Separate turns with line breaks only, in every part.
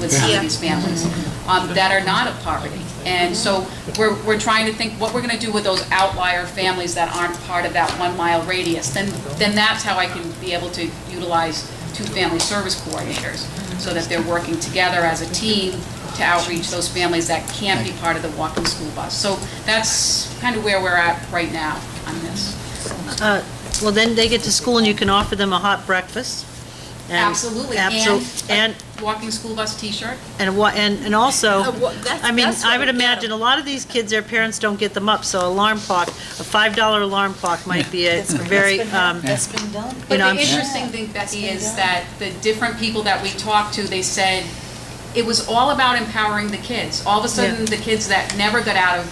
with some of these families um, that are not of poverty. And so we're, we're trying to think what we're going to do with those outlier families that aren't part of that one-mile radius. Then, then that's how I can be able to utilize two family service coordinators, so that they're working together as a team to outreach those families that can't be part of the walking school bus. So that's kind of where we're at right now on this.
Uh, Well, then they get to school and you can offer them a hot breakfast. and-
Absolutely,
abso-
and
And,
a walking school bus T-shirt.
and, wha- and and also,
Uh, wha- that's-
I mean,
that's
I
what
would
we get 'em.
imagine, a lot of these kids, their parents don't get them up, so alarm clock, a $5 alarm clock might be a very, um,
That's been done.
You
But
know,
the
I'm sure-
interesting thing, Becky,
That's
is
been
that the different people that we talked to, they said it was all about empowering the kids. All of a sudden, the kids that never got out of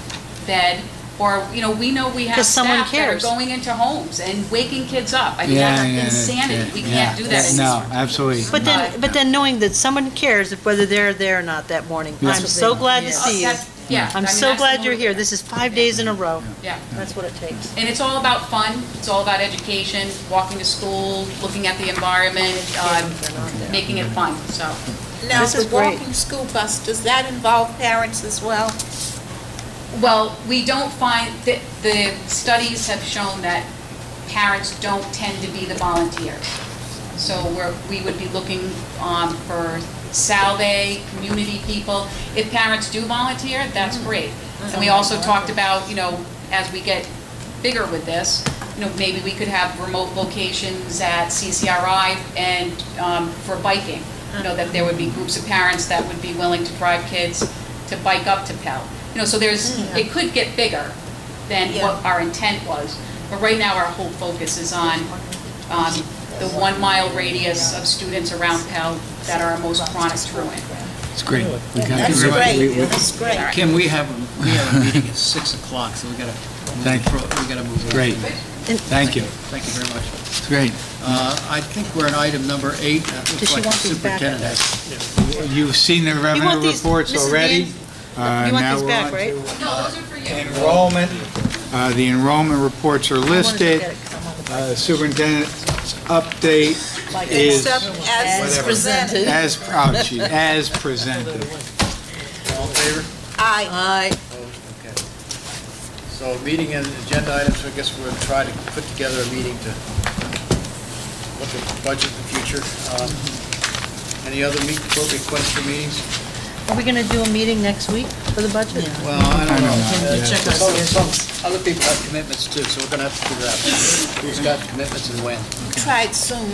bed, or, you know, we know we have
'Cause someone
staff that are
cares.
going into homes and waking kids up. I mean,
Yeah,
that's
yeah, yeah,
insanity. We
yeah.
can't do that
No,
anymore.
absolutely.
but
Right.
then, but then knowing that someone cares if whether they're there or not that morning. I'm so glad to
Oh,
see you.
that's- Yeah. I
I'm
mean,
so
that's the
glad you're here.
motivator.
This is five days in a row.
Yeah.
That's what it takes.
And it's all about fun, it's all about education, walking to school, looking at the environment, um, making it fun, so.
Now,
This
the
is great.
walking school bus, does that involve parents as well?
Well, we don't find, the, the studies have shown that parents don't tend to be the volunteers. So we're, we would be looking, um, for Salve, community people. If parents do volunteer, that's great. And we also talked about, you know, as we get bigger with this, you know, maybe we could have remote locations at CCRI and, um, for biking. You know, that there would be groups of parents that would be willing to drive kids to bike up to Pell. You know, so there's, it could get bigger than what
Yeah.
our intent was. But right now, our whole focus is on, um, the one-mile radius of students around Pell that are most chronic truant.
It's great. We got-
That's
we- we-
great,
we-
that's great.
Kim, we have, we have a meeting at 6 o'clock, so we gotta, move
Thank
the
you.
pro- we gotta move. on.
Great. Thank you.
Thank you very much.
It's great.
Uh, I think we're on item number eight. That
Does
looks
she
like the
want these back?
superintendent has.
You've seen the revenue
want these-
reports
Mrs.
already. Uh,
You want
now
these
we're
back,
on
right?
to
No, those are for you.
Enrollment. Uh, The enrollment reports are listed. Uh, Superintendent's update is
Except as
Whatever.
presented.
as, oh, gee, as presented.
All in favor?
I
Aye.
Okay. So meeting and agenda items, I guess we'll try to put together a meeting to look at the budget in the future. Um, Any other meet, requests for meetings?
Are we going to do a meeting next week for the budget?
Well, I don't know.
Check our
Some- some
schedules.
Other people have commitments too, so we're gonna have to figure out who's got commitments and when.
tried soon,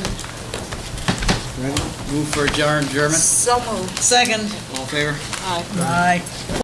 Move for adjourn, German.
so moved.
Second.
All in favor?
Aye.